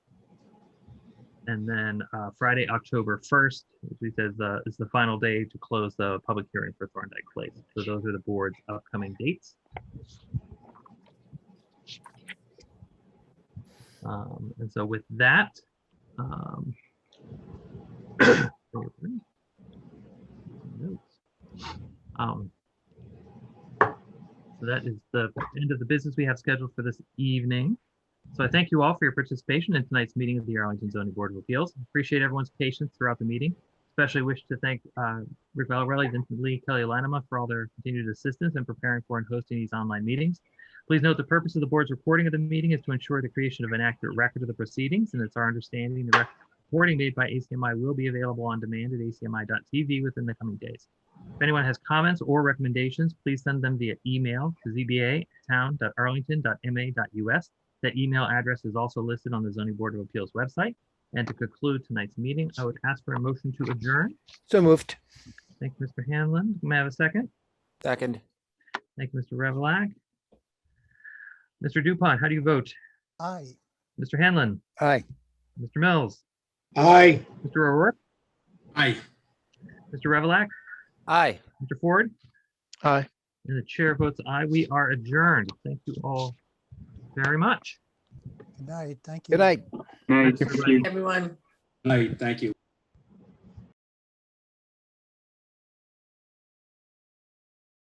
And then uh, Friday, October 1st, which we said is the, is the final day to close the public hearing for Thorndike Place. So those are the board's upcoming dates. Um, And so with that, um, um, so that is the end of the business we have scheduled for this evening. So I thank you all for your participation in tonight's meeting of the Arlington Zoning Board of Appeals. Appreciate everyone's patience throughout the meeting. Especially wish to thank uh, Rick Valarelli, Vincent Lee, Kelly Lanema for all their continued assistance in preparing for and hosting these online meetings. Please note the purpose of the board's recording of the meeting is to ensure the creation of an accurate record of the proceedings, and it's our understanding the rec- recording made by ACMI will be available on demand at acmi.tv within the coming days. If anyone has comments or recommendations, please send them via email to zba@town.arlington.ma.us. That email address is also listed on the zoning board of appeals website. And to conclude tonight's meeting, I would ask for a motion to adjourn. So moved. Thank you, Mr. Hanlon. May I have a second? Second. Thank you, Mr. Revlock. Mr. Dupont, how do you vote? Aye. Mr. Hanlon, Aye. Mr. Mills, Aye. Mr. O'Rourke, Aye. Mr. Revlock, Aye. Mr. Ford? Aye. And the chair votes aye. We are adjourned. Thank you all very much. Good night, thank you. Good night. Thanks, everybody. everyone. Aye, thank you.